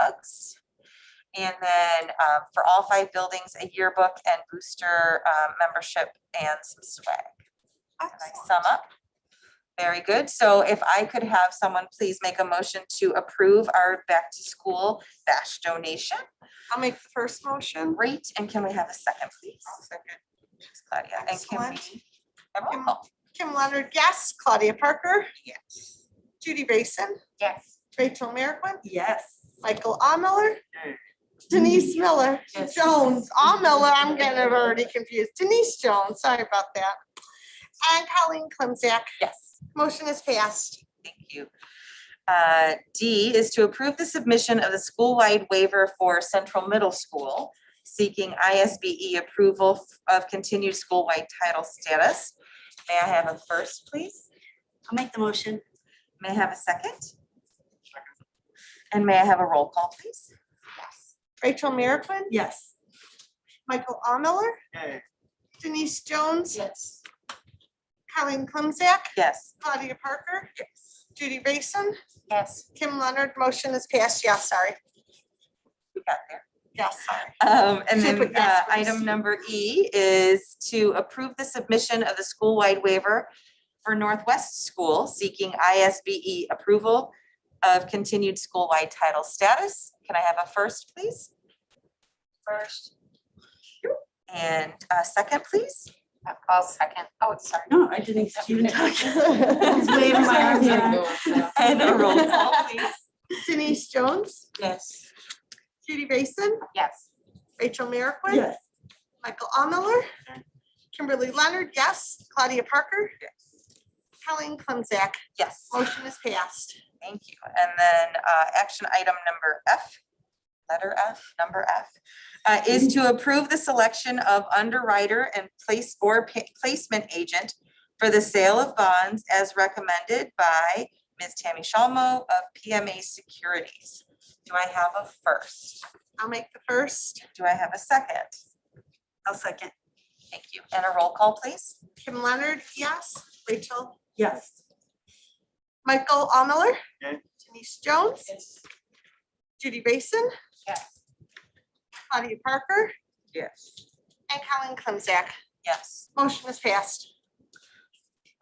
mugs. And then um, for all five buildings, a yearbook and booster um, membership and some swag. Can I sum up? Very good. So if I could have someone please make a motion to approve our back to school bash donation. I'll make the first motion. Great. And can we have a second, please? Thanks, Claudia. And can we? Excellent. a roll call? Kim Leonard, yes. Claudia Parker? Yes. Judy Basen, Yes. Rachel Merrickwin, Yes. Michael Miller, Denise Miller, Yes. Jones, Miller. I'm getting it already confused. Denise Jones, sorry about that. And Colleen Clemzak. Yes. Motion is passed. Thank you. Uh, D is to approve the submission of the school-wide waiver for Central Middle School seeking ISBE E approval of continued school-wide title status. May I have a first, please? I'll make the motion. May I have a second? And may I have a roll call, please? Rachel Merrickwin, Yes. Michael Miller, Denise Jones, Yes. Colleen Clemzak, Yes. Claudia Parker. Yes. Judy Basen, Yes. Kim Leonard. Motion is passed. Yes, sorry. We got there. Yes, sorry. Um, and Should put then, uh, yes first. item number E is to approve the submission of the school-wide waiver for Northwest School seeking ISBE E approval of continued school-wide title status. Can I have a first, please? First. And a second, please? I'll second. Oh, sorry. No, I didn't even talk. It's waving my arms around. And a roll call, please? Denise Jones, Yes. Judy Basen, Yes. Rachel Merrickwin. Yes. Michael Miller, Kimberly Leonard, yes. Claudia Parker. Yes. Colleen Clemzak, Yes. motion is passed. Thank you. And then uh, action item number F, letter F, number F, uh, is to approve the selection of underwriter and place or pa- placement agent for the sale of bonds as recommended by Ms. Tammy Shalmo of PMA Securities. Do I have a first? I'll make the first. Do I have a second? I'll second. Thank you. And a roll call, please? Kim Leonard, yes. Rachel, Yes. Michael Miller, Okay. Denise Jones, Judy Basen, Yes. Claudia Parker, Yes. and Colleen Clemzak. Yes. Motion is passed.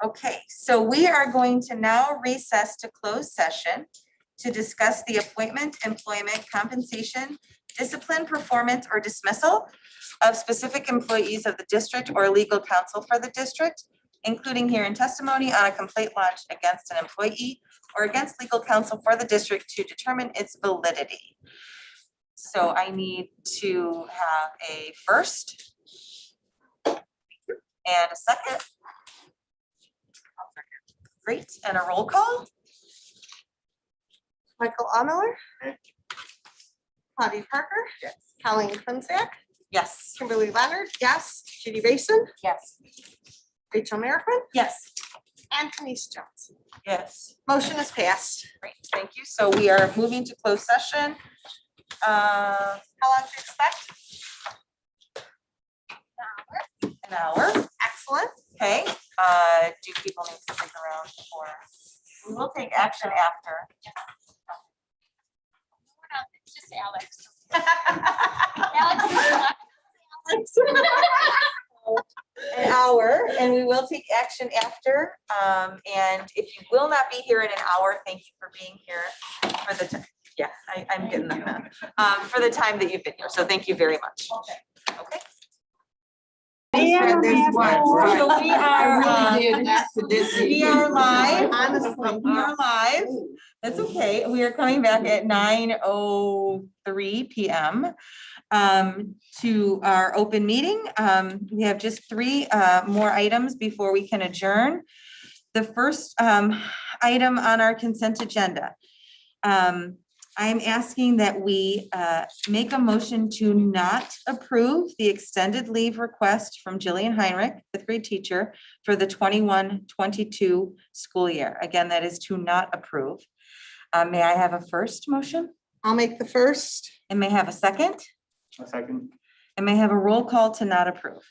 Okay, so we are going to now recess to closed session to discuss the appointment, employment, compensation, discipline, performance, or dismissal of specific employees of the district or legal counsel for the district, including hearing testimony on a complaint launched against an employee or against legal counsel for the district to determine its validity. So I need to have a first and a second. Great, and a roll call? Michael Miller, Okay. Claudia Parker. Yes. Colleen Clemzak, Yes. Kimberly Leonard, yes. Judy Basen, Yes. Rachel Merrickwin, Yes. and Denise Jones. Yes. Motion is passed. Great, thank you. So we are moving to closed session. Uh, How long do you expect? an hour, Excellent. okay? Uh, do people need to stick around for? We will take action after. It's just Alex. Alex is not- An hour, and we will take action after. Um, and if you will not be here in an hour, thank you for being here for the, ti- yeah, I, I'm getting them. Um, for the time that you've been here, so thank you very much. Okay. Okay. Yeah, there's one. So we are, uh, we are live, Honestly. we are live. That's okay. We are coming back at nine oh three PM um, to our open meeting. Um, We have just three uh, more items before we can adjourn. The first um, item on our consent agenda. um, I'm asking that we uh, make a motion to not approve the extended leave request from Jillian Heinrich, fifth grade teacher, for the 21-22 school year. Again, that is to not approve. Uh, May I have a first motion? I'll make the first. And may I have a second? A second. And may I have a roll call to not approve?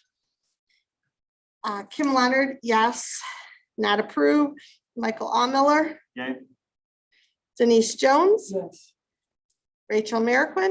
Uh, Kim Leonard, yes. Not approve. Michael Miller, Yay. Denise Jones, Yes. Rachel Merrickwin,